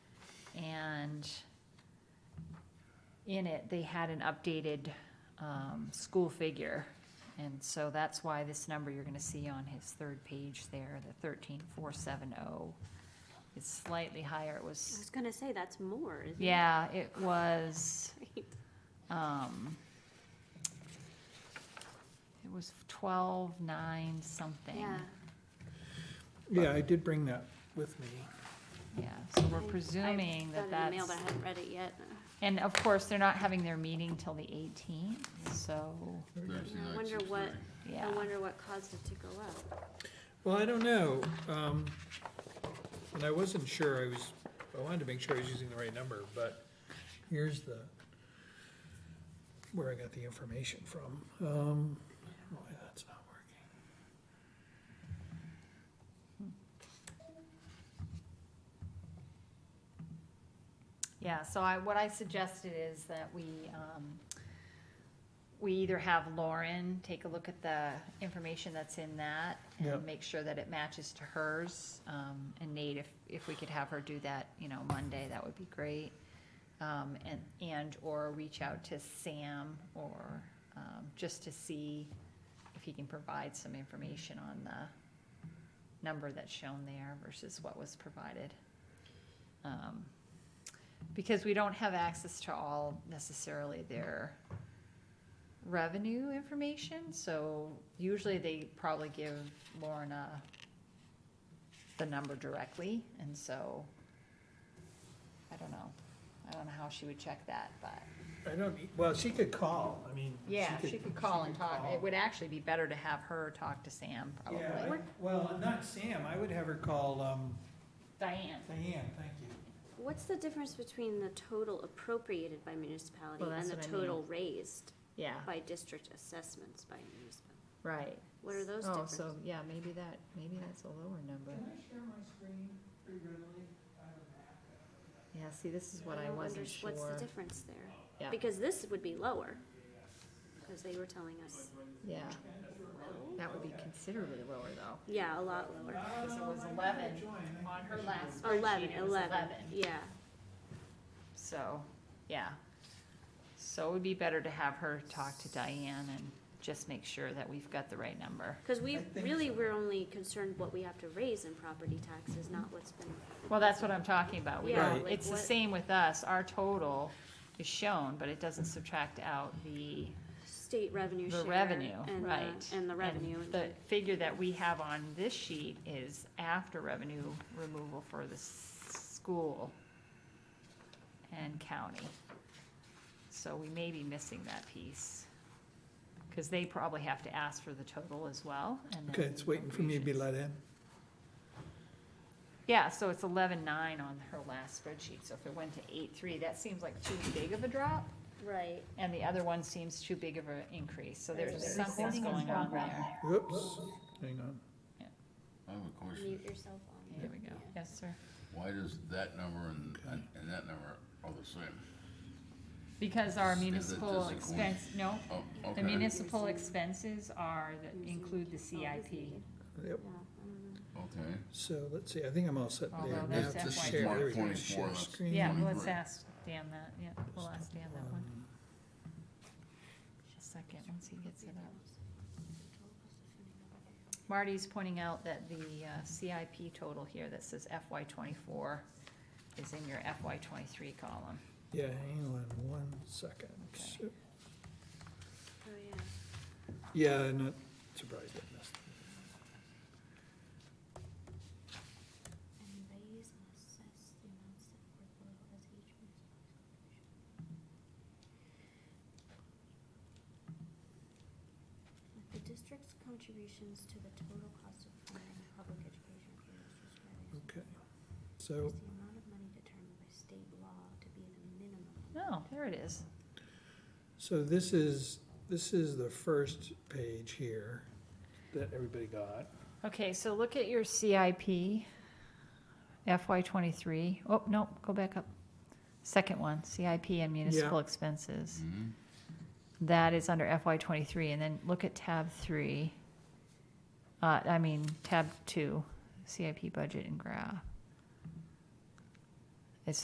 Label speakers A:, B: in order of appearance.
A: and in it, they had an updated, um, school figure. And so that's why this number you're gonna see on his third page there, the thirteen four seven oh, is slightly higher. It
B: I
A: was,
B: was gonna say, that's more, isn't it?
A: yeah, it was, um, it was twelve nine something.
B: Yeah,
C: Yeah, I did bring that with me.
A: Yeah, so we're
B: I-
A: presuming
B: got
A: that
B: it in the mail,
A: that's,
B: but I haven't read it yet.
A: and of course, they're not having their meeting till the eighteenth, so,
D: Thursday
B: Yeah, I
D: night,
B: wonder what-
D: 6:30.
A: yeah.
B: I wonder what caused it to go up.
C: Well, I don't know, um, and I wasn't sure, I was, I wanted to make sure I was using the right number, but here's the, where I got the information from. Um, why that's not working.
A: Yeah, so I, what I suggested is that we, um, we either have Lauren take a look at the information that's in that
C: Yeah.
A: and make sure that it matches to hers. Um, and Nate, if, if we could have her do that, you know, Monday, that would be great. Um, and, and, or reach out to Sam or, um, just to see if he can provide some information on the number that's shown there versus what was provided. Um, because we don't have access to all necessarily their revenue information, so usually they probably give Lauren a, the number directly, and so, I don't know. I don't know how she would check that, but,
C: I don't, e- well, she could call, I mean.
A: yeah, she could call and talk,
C: call.
A: it would actually be better to have her talk to Sam,
C: Yeah,
A: probably.
C: I- well, not Sam, I would have her call, um,
A: Diane.
C: Diane, thank you.
B: What's the difference between the total appropriated by municipality
A: Well,
B: and
A: that's
B: the
A: what I
B: total raised
A: Yeah,
B: by district assessments by municipality?
A: right.
B: What are those
A: Oh,
B: differences?
A: so, yeah, maybe that, maybe that's a lower number.
C: I share my screen pretty readily? I have a map.
A: Yeah, see, this is what
B: I
A: I
B: don't
A: wasn't
B: unders-
A: sure.
B: What's the difference there?
A: Yeah.
B: Because this would be lower, because they were telling us,
A: Yeah, that would be considerably lower though.
B: yeah, a lot lower.
A: Because it was eleven on her last
B: Eleven,
A: spreadsheet, it was
B: eleven, yeah.
A: So, yeah. So it would be better to have her talk to Diane and just make sure that we've got the right number.
B: Cause we,
C: I think
B: really, we're only concerned what we have to raise in property taxes, not what's been,
A: Well, that's what I'm talking about. We,
B: Yeah,
C: Right.
B: like
A: it's the
B: what-
A: same with us. Our total is shown, but it doesn't subtract out the,
B: state revenue share.
A: the revenue,
B: and the-
A: right?
B: And the revenue.
A: The figure that we have on this sheet is after revenue removal for the s- school and county. So we may be missing that piece. Because they probably have to ask for the total as well. and then
C: Okay, it's waiting for me to be let in.
A: Yeah, so it's eleven-nine on her last spreadsheet. So if it went to eight-three, that seems like too big of a drop.
B: Right.
A: And the other one seems too big of an increase. So there's
B: There's a
A: something's
E: recording in
A: going on
E: progress.
A: there.
C: Whoops, hang on.
D: I have a question.
B: Mute yourself on.
A: There we go. Yes, sir.
D: Why does that number and, and and that number are the same?
A: Because our
D: Is it
A: municipal
D: just a coin?
A: expense, no,
D: Oh,
A: the
D: okay,
A: municipal expenses are, that include the CIP.
C: Yep.
B: Yeah, I don't know.
D: okay.
C: So let's see, I think I'm all set
A: Although
C: there.
A: that's
C: Now, just
A: FY
C: share, there we go,
D: 24,
C: share
D: that's-
C: screen.
A: Yeah, well, let's
D: Twenty-three.
A: ask Dan that, yeah, we'll ask Dan that one.
C: Um,
A: Just a second, once he gets it up. Marty's pointing out that the uh, CIP total here that says FY twenty-four is in your FY twenty-three column.
C: Yeah, hang on one second.
A: Okay.
B: Oh, yeah.
C: Yeah, I'm not surprised I missed.
F: and raise and assess the amounts set forth below as each municipal corporation. With the district's contributions to the total cost of funding public education for the district's revenues.
C: Okay.
F: Is
C: So,
F: the amount of money determined by state law to be the minimum
A: No, Oh, there it is.
C: so this is, this is the first page here that everybody got.
A: Okay, so look at your CIP, FY twenty-three. Oh, no, go back up. Second one, CIP and municipal expenses.
D: Mhm.
A: That is under FY twenty-three, and then look at tab three. Uh, I mean, tab two, CIP budget and graph.